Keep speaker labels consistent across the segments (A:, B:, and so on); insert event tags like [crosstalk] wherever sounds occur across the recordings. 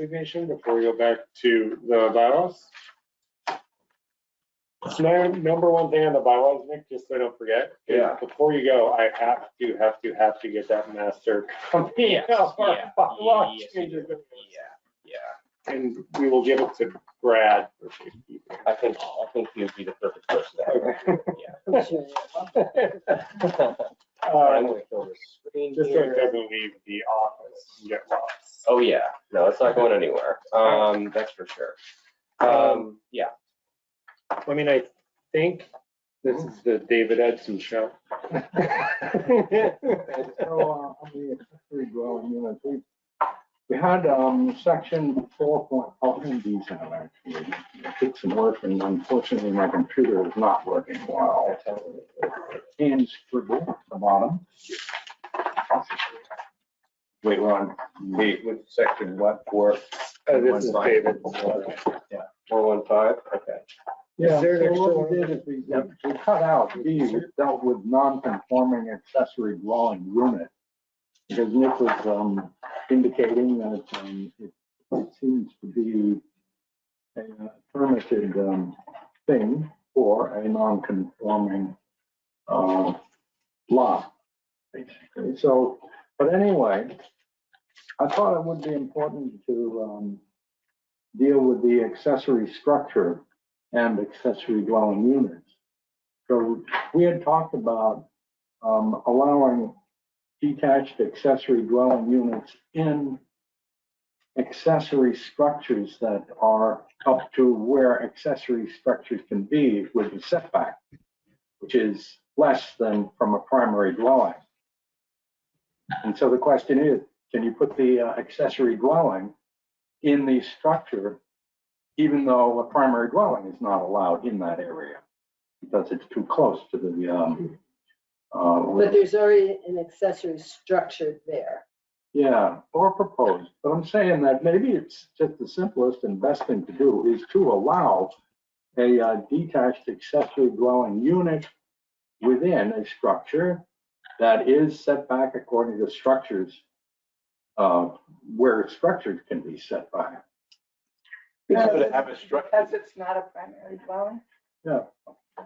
A: designation before we go back to the bylaws. So my number one thing on the bylaws, Nick, just so I don't forget. is
B: Yeah.
A: Before you go, I have to, have to, have to get that master copy.
C: Yes,
A: of our
C: yeah,
A: bylaw
C: yes,
A: changes.
C: Yeah,
A: And we will give it to Brad. for safekeeping.
C: I think, I think you'd be the perfect person to
A: Okay.
C: have. I'm
A: Uh,
C: gonna kill this screen
A: Just so it
C: here.
A: doesn't leave the office and get lost.
C: Oh, yeah, no, it's not going anywhere, um, that's for sure. Um, yeah,
A: I mean, I think this is the David Edson [laughs] show.
D: So, uh, on the accessory dwelling units, we, we had, um, section four point, oh, and these have actually, it took some work, and unfortunately, my computer is not working well. And scribble at the bottom.
B: Wait, Ron, wait, with section what for?
A: Uh, This is David.
C: four one five, okay.
D: Yeah,
E: there an
D: so what we
E: extra
D: did is we, we cut out B, which dealt with non-conforming accessory dwelling unit. Because Nick was, um, indicating that, um, it, it seems to be a permitted, um, thing for a non-conforming, uh, lot, basically. So, but anyway, I thought it would be important to, um, deal with the accessory structure and accessory dwelling units. So we had talked about um, allowing detached accessory dwelling units in accessory structures that are up to where accessory structures can be with the setback, which is less than from a primary dwelling. And so the question is, can you put the uh, accessory dwelling in the structure even though a primary dwelling is not allowed in that area because it's too close to the, um, uh,
E: But there's already an accessory structure there.
D: yeah, or proposed. But I'm saying that maybe it's just the simplest and best thing to do is to allow a uh, detached accessory dwelling unit within a structure that is set back according to structures, uh, where structures can be set by.
B: Because it have a structure,
F: Because it's not a primary dwelling?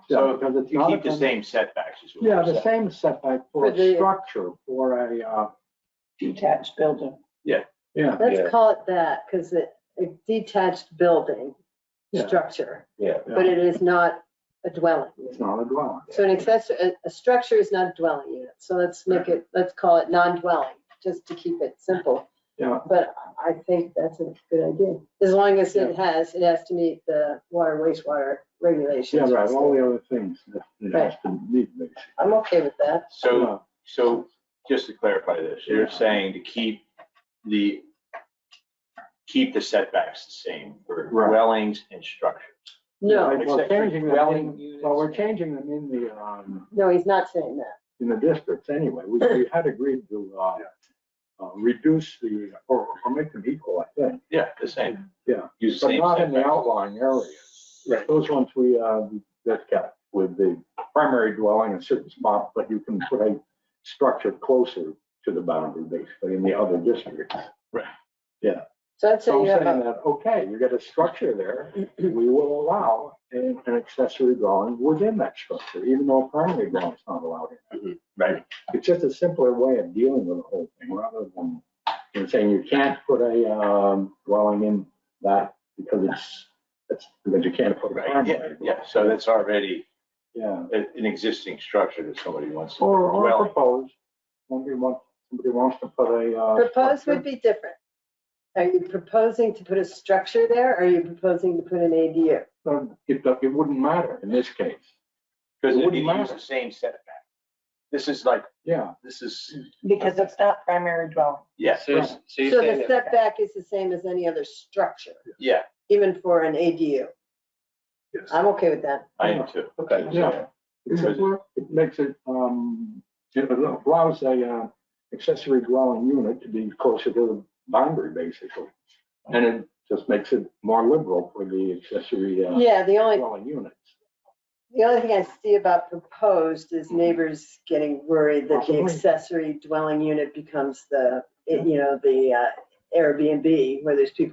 B: So
D: because it's
B: you
D: not a
B: keep the
D: con-
B: same setbacks as
D: Yeah,
B: well.
D: the same setback for
E: For
D: a
E: the-
D: structure, for a, uh,
F: Detached building.
D: yeah,
C: Yeah.
E: Let's call it that, because it, a detached building
D: Yeah.
E: structure,
C: Yeah,
E: but it is not a dwelling.
D: it's not a dwelling.
E: So an accessory, a, a structure is not a dwelling unit, so let's make it, let's call it non-dwelling, just to keep it simple.
D: Yeah.
E: But I think that's a good idea, as long as it has, it has to meet the water wastewater
D: Yeah,
E: regulations.
D: right, all the other things that it has to meet, basically.
E: I'm okay with that.
B: So, so just to clarify this, you're saying to keep the, keep the setbacks the same for
D: Right.
B: dwellings and structures.
E: No,
D: Like, Well,
B: Except for
D: changing them
B: dwelling
D: in,
B: units.
D: well, we're changing them in the, um,
E: no, he's not saying that.
D: in the districts anyway. We, we had agreed to, uh, uh, reduce the, or, or make them equal, I think,
B: Yeah, the same.
D: Yeah.
B: Use the
D: but
B: same
D: not in the
B: setbacks.
D: outlying areas.
A: Right.
D: Those ones we, uh, that kept with the primary dwelling in a certain spot, but you can put a structure closer to the boundary, basically, in the other districts.
E: So I'd say
D: So
E: you
D: I'm
E: have a
D: saying that, okay, you got a structure there, we will allow an an accessory dwelling within that structure, even though a primary dwelling is not allowed in.
B: Mm-hmm, Right.
D: It's just a simpler way of dealing with the whole thing, rather than, than saying you can't put a, um, dwelling in that because it's, it's, because you can't put a
B: Right, yeah,
D: primary.
B: yeah, so that's already
D: Yeah,
B: a- an existing structure that somebody wants to.
D: or, or
B: Dwelling.
D: propose, somebody wants, somebody wants to put a, uh.
E: Propose
D: structure.
E: would be different. Are you proposing to put a structure there, or are you proposing to put an ADU?
D: So It, it wouldn't matter in this case,
B: Because
D: It
B: it
D: wouldn't
B: use
D: matter.
B: the same setback. This is like,
D: yeah,
B: this is,
F: Because it's not primary dwelling.
B: yeah,
C: so, so you're
E: So the
C: saying, that-
E: setback is the same as any other structure,
B: yeah,
E: even for an ADU.
A: Yes.
E: I'm okay with that.
B: I am too.
C: okay,
D: yeah.
B: Because-
D: It makes it, um, it allows a uh, accessory dwelling unit to be closer to the boundary, basically. And it just makes it more liberal for the accessory uh,
E: Yeah, the only,
D: dwelling units.
E: the only thing I see about proposed is neighbors getting worried that the
D: Absolutely.
E: accessory dwelling unit becomes the, you know, the uh, Airbnb, where there's people